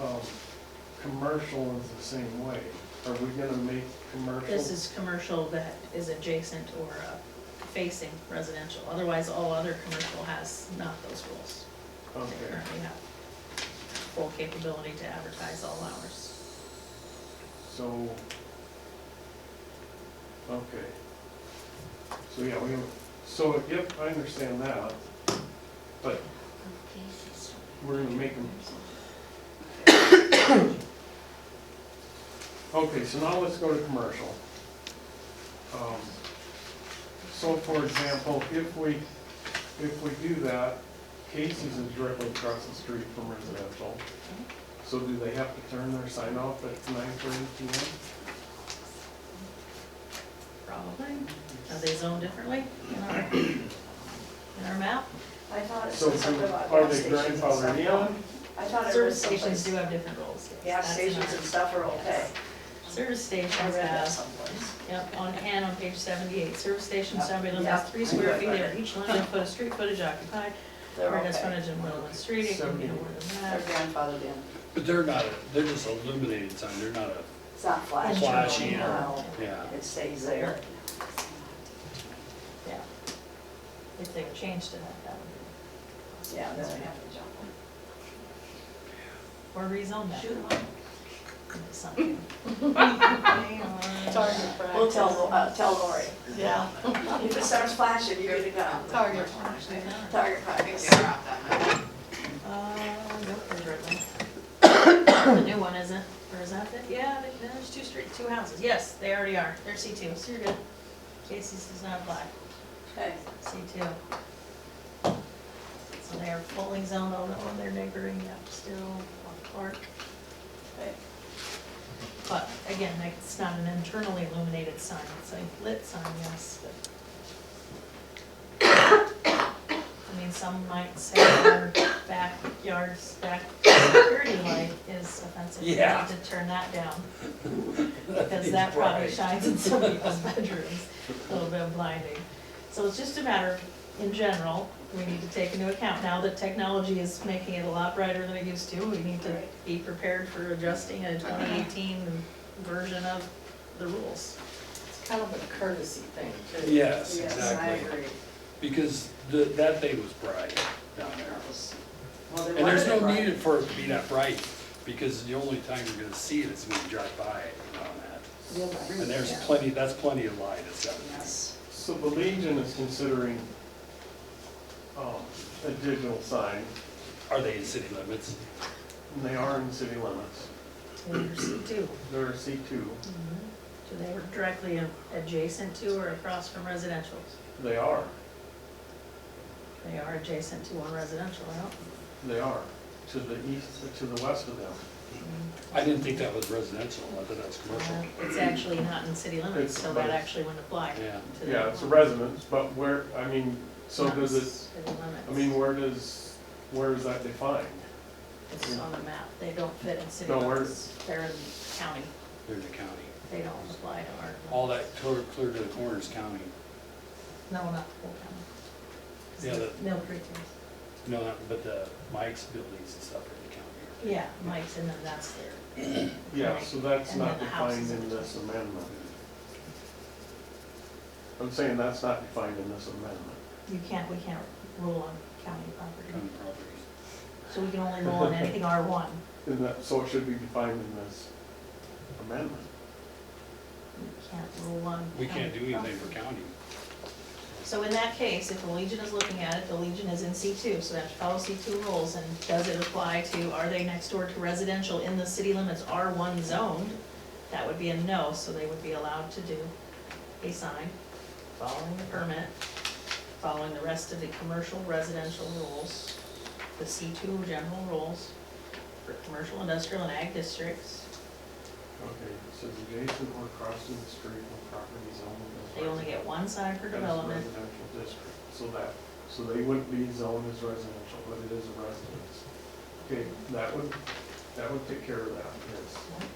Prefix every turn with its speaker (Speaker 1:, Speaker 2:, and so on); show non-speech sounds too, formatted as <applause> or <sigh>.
Speaker 1: um, commercial is the same way. Are we gonna make commercial?
Speaker 2: This is commercial that is adjacent or uh, facing residential, otherwise all other commercial has not those rules. They
Speaker 1: Okay,
Speaker 2: currently have full capability to advertise all hours.
Speaker 1: so, okay. So, yeah, we, so, yep, I understand that, but we're gonna make them. Okay, so now let's go to commercial. Um, So for example, if we, if we do that, Casey's is directly across the street from residential. So do they have to turn their sign off at nine thirty P M?
Speaker 2: Probably, are they zoned differently in our, in our map?
Speaker 3: I thought it
Speaker 1: So
Speaker 3: said something about
Speaker 1: are they
Speaker 3: gas stations and
Speaker 1: grandfathered
Speaker 3: stuff.
Speaker 1: in?
Speaker 3: I thought it
Speaker 2: Service
Speaker 3: was
Speaker 2: stations do
Speaker 3: someplace.
Speaker 2: have different rules. yes,
Speaker 3: Gas
Speaker 2: that's in
Speaker 3: stations
Speaker 2: our-
Speaker 3: and stuff are okay.
Speaker 2: Yes. Service stations
Speaker 3: I read that
Speaker 2: have,
Speaker 3: someplace.
Speaker 2: yep, on, and on page seventy-eight, service stations shall be limited
Speaker 3: Yeah.
Speaker 2: to three square feet,
Speaker 3: Yeah.
Speaker 2: or each limited foot of street footage occupied,
Speaker 3: They're
Speaker 2: Or that's
Speaker 3: okay.
Speaker 2: frontage in Woodland Street, it can be no more than
Speaker 3: They're
Speaker 2: that.
Speaker 3: grandfathered in.
Speaker 4: But they're not, a- they're just a illuminated sign, they're not a,
Speaker 3: It's not flashy.
Speaker 4: Flashy,
Speaker 2: yeah.
Speaker 3: No,
Speaker 4: yeah.
Speaker 3: It stays there.
Speaker 2: Yeah. If they were changed to that, that would
Speaker 3: Yeah, then we have to jump them.
Speaker 2: be, or rezone that
Speaker 3: Shoot them
Speaker 2: into
Speaker 3: <laughs>
Speaker 2: something.
Speaker 5: Target
Speaker 3: up. We'll tell, Lo-
Speaker 5: practice.
Speaker 3: uh, tell Lori.
Speaker 5: Yeah.
Speaker 3: If it starts flashing, you get to go.
Speaker 5: Target practice.
Speaker 3: Target practice.
Speaker 2: Uh, nope, there's red one.
Speaker 3: <coughs>
Speaker 2: The new one isn't, or is that it? Yeah, they- there's two street, two houses, yes, they already are, they're C two, so you're good. Casey's does not apply,
Speaker 3: Okay.
Speaker 2: C two. So they are fully zoned, although they're neighboring, yep, still on Clark.
Speaker 3: okay.
Speaker 2: But again, like, it's not an internally illuminated sign, it's a lit sign, yes, but. I mean, some might say our backyard's back security light is offensive, we need
Speaker 4: Yeah.
Speaker 2: to turn that down. Because that probably shines in some people's bedrooms, a little bit blinding. So it's just a matter, of, in general, we need to take into account now that technology is making it a lot brighter than it used to. We need to
Speaker 3: Right.
Speaker 2: be prepared for adjusting a
Speaker 5: Uh-huh.
Speaker 2: twenty eighteen version of the rules.
Speaker 5: It's kind of a courtesy thing, too.
Speaker 4: yes,
Speaker 3: Yes, I
Speaker 4: exactly.
Speaker 3: agree.
Speaker 4: Because the, that thing was bright down there.
Speaker 3: That was- Well, they
Speaker 4: And there's
Speaker 3: wanted it
Speaker 4: no
Speaker 3: right.
Speaker 4: need for it to be that bright, because the only time you're gonna see it is when you drive by it on
Speaker 5: Yeah, but
Speaker 4: that. And there's
Speaker 3: Yeah.
Speaker 4: plenty, that's plenty of light, it's got,
Speaker 3: Yes.
Speaker 1: So the Legion is considering, um, a digital sign,
Speaker 4: are they in city limits?
Speaker 1: and they are in city limits.
Speaker 2: Leaders do,
Speaker 1: They're C two,
Speaker 5: Mm-hmm.
Speaker 2: do they were directly adjacent to or across from residential?
Speaker 1: they are,
Speaker 2: They are adjacent to one residential, right?
Speaker 1: they are, to the east, to the west of them.
Speaker 4: I didn't think that was residential, I thought that was commercial.
Speaker 3: Uh-huh.
Speaker 2: Uh, It's actually not in city limits,
Speaker 1: It's-
Speaker 2: so that actually wouldn't apply to
Speaker 4: Yeah.
Speaker 2: them.
Speaker 1: Yeah, it's a residence, but where, I mean, so
Speaker 2: Not
Speaker 1: does
Speaker 2: in
Speaker 1: it,
Speaker 2: city limits.
Speaker 1: I mean, where does, where is that defined?
Speaker 2: It's on the map, they don't fit in city
Speaker 1: No, we're-
Speaker 2: limits, they're in county,
Speaker 4: They're in the county.
Speaker 2: they don't apply to our.
Speaker 4: All that clear, clear to the corner is county.
Speaker 2: No, not the whole county.
Speaker 4: Yeah, the-
Speaker 2: Mill Creek is,
Speaker 4: No, not- but the Mike's buildings and stuff are in the county.
Speaker 2: yeah, Mike's, and then that's their,
Speaker 1: Yeah, so that's
Speaker 2: And then
Speaker 1: not
Speaker 2: the house is
Speaker 1: defined in
Speaker 2: in
Speaker 1: this
Speaker 4: uh,
Speaker 1: amendment. I'm saying that's not defined in this amendment.
Speaker 2: you can't, we can't rule on county property.
Speaker 4: County properties.
Speaker 2: So we can only rule on anything R one.
Speaker 1: Isn't that, so it should be defined in this amendment.
Speaker 2: We can't rule on.
Speaker 4: We can't do
Speaker 2: county
Speaker 4: anything for
Speaker 2: property.
Speaker 4: county.
Speaker 2: So in that case, if the Legion is looking at it, the Legion is in C two, so they have to follow C two rules, and does it apply to, are they next door to residential in the city limits R one zoned? That would be a no, so they would be allowed to do a sign, following the permit, following the rest of the commercial residential rules, the C two general rules for commercial, industrial, and ag districts.
Speaker 1: Okay, so adjacent or crossing the street or properties owned.
Speaker 2: They only get one sign per
Speaker 1: As
Speaker 2: development,
Speaker 1: Residential district, so that, so they wouldn't be zoned as residential, but it is a residence. Okay, that would, that would take care of that, yes.